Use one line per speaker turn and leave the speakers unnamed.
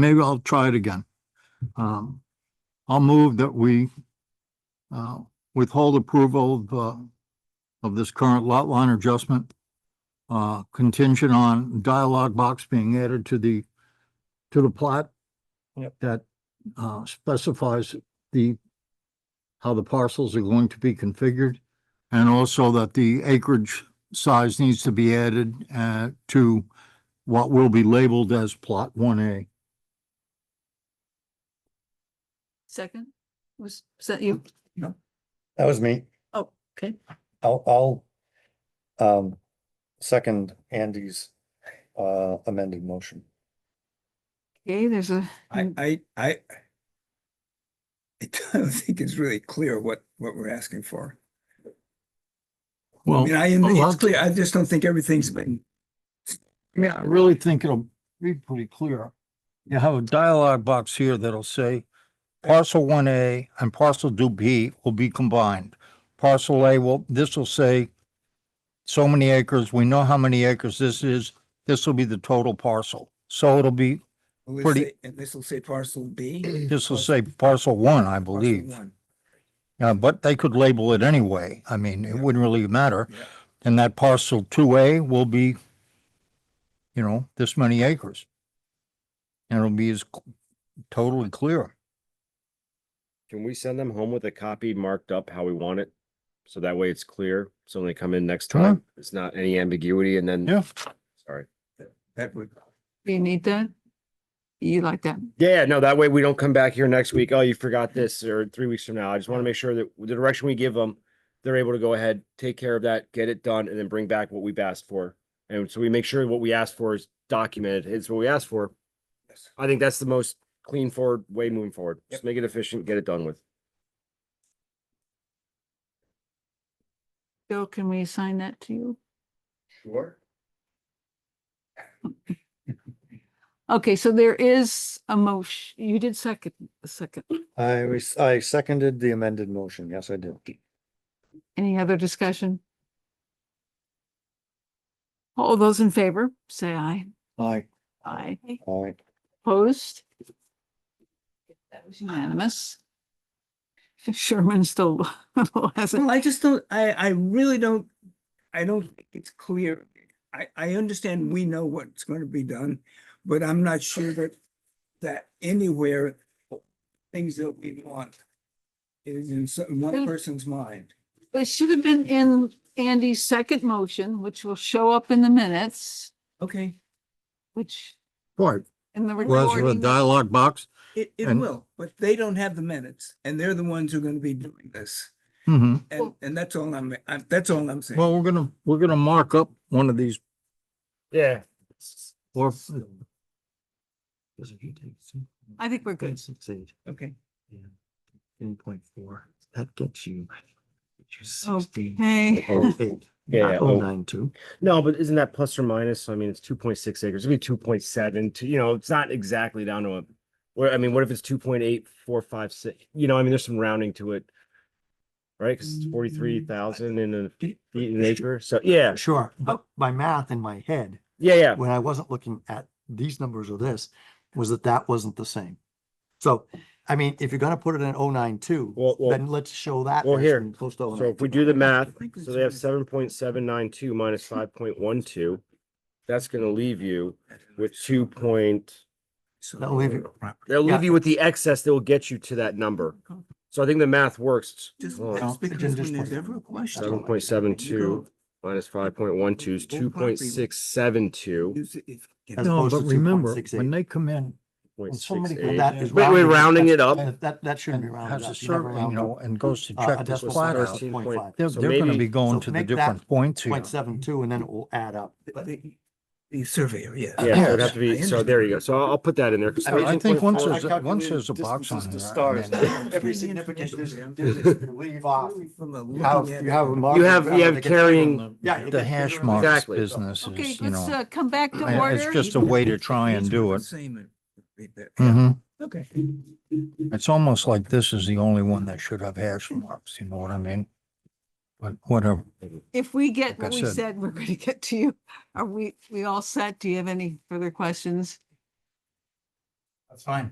maybe I'll try it again. Um, I'll move that we uh, withhold approval of, uh, of this current lot line adjustment uh, contingent on dialogue box being added to the, to the plot
Yep.
that uh, specifies the, how the parcels are going to be configured. And also that the acreage size needs to be added uh, to what will be labeled as Plot One A.
Second, was, was that you?
That was me.
Oh, okay.
I'll, I'll, um, second Andy's, uh, amended motion.
Okay, there's a,
I,
Mm.
I, I. I don't think it's really clear what, what we're asking for. I
Well, Oh,
mean, I am,
a
it's
lot-
clear, I just don't think everything's been.
I really think it'll be pretty clear. You have a dialogue box here that'll say parcel one A and parcel two B will be combined. Parcel A will, this will say so many acres, we know how many acres this is, this will be the total parcel. So it'll be,
will it
Pretty-
say- And this will say parcel B?
this will say
Parcel-
parcel one, I
parcel
believe.
one.
Uh, but they could label it anyway. I mean, it
Yeah.
wouldn't really matter.
Yeah.
And that parcel two A will be, you know, this many acres. And it'll be as c- totally clear.
Can we send them home with a copy marked up how we want it? So that way it's clear. So when they come in next
Sure.
time, it's not any ambiguity and then,
Yeah.
sorry.
That would,
do you need that? You like that?
Yeah, no, that way we don't come back here next week. Oh, you forgot this or three weeks from now. I just want to make sure that the direction we give them, they're able to go ahead, take care of that, get it done, and then bring back what we've asked for. And so we make sure what we asked for is documented. It's what we asked for.
Yes.
I think that's the most clean forward way moving forward.
Yep.
Just make it efficient, get it done with.
Bill, can we assign that to you?
Sure.
Okay, so there is a motion. You did second, a second.
I was, I seconded the amended motion. Yes, I did.
Any other discussion? All those in favor, say aye.
Aye.
Aye.
All right.
Opposed? That was unanimous. Sherman still hasn't
well, I just don't, I, I really don't, I don't think it's clear. I, I understand we know what's going to be done, but I'm not sure that, that anywhere, things that we want is in some, one
Mm.
Well-
person's mind.
It should have been in Andy's second motion, which will show up in the minutes,
Okay.
which
Right.
in the
Whereas with a
recording.
dialogue box,
It, it
And-
will, but they don't have the minutes and they're the ones who are gonna be doing this.
mhm.
And,
Well-
and that's all I'm, I'm, that's all I'm saying.
well, we're gonna, we're gonna mark up one of these
Yeah.
or
uh,
I think we're good.
Okay.
Oh, Okay.
Yeah. oh. No, but isn't that plus or minus? So I mean, it's two point six acres, it'd be two point seven, you know, it's not exactly down to a. Where, I mean, what if it's two point eight, four, five, six, you know, I mean, there's some rounding to it. Right, cause it's forty-three thousand in a feet an acre, so, yeah,
Sure, but my math in my head,
yeah, yeah,
when I wasn't looking at these numbers or this, was that that wasn't the same. So, I mean, if you're gonna put it in 092,
well,
then
well,
let's show that.
well,
as
here,
being Close to
so
092.
if we do the math,
think
so
it's
they have
right.
seven point seven nine two minus five point one two. That's gonna leave you with two point,
So-
That'll leave you-
they'll
Yeah.
leave you with the excess that will get you to that number, so I think the math works.
Just,
Oh.
that's
No, it
because
didn't
when
just-
there's ever a question.
Seven point seven two minus five point one two is two
Full
point
property.
six seven two.
Is if-
As
No,
opposed
but
to
remember,
2.68.
when they come in,
Point six
somebody put
eight.
That is
Wait, we're rounding it up.
That, that- that shouldn't be rounded
has
up.
a
You never
certain, you
round
know,
up,
and goes to
uh,
check
a
this
decimal
flat
point
out,
thirteen.
0.5.
they're,
So
they're gonna
maybe-
be going
So
to the
make that
different points here.
0.72, and then it will add up.
the-
But
the- The surveyor, yeah.
Yeah, so it'd have to
I
be, so
understand.
there you go. So I'll, I'll put that in there. 'cause
I mean,
I
thirteen
think
point
once
four-
there's, a- once there's a box on there. I mean,
Every significant distance, distance, leave off.
From a
You have,
looking at
you
it
have. a
from-
marker
You have,
around
you
that
have
gets bigger.
carrying,
Yeah, it
The
gets
hash
bigger.
marks
Exactly.
business
Okay,
is, you
let's
know,
uh, come back to
I- it's
order.
just a way to try and do it.
Same. and-
Mhm.
Okay.
It's almost like this is the only one that should have hash marks, you know what I mean? But whatever.
If we
like
get
I
what we
said.
said, we're going to get to you. Are we, we all set? Do you have any further questions?
That's fine.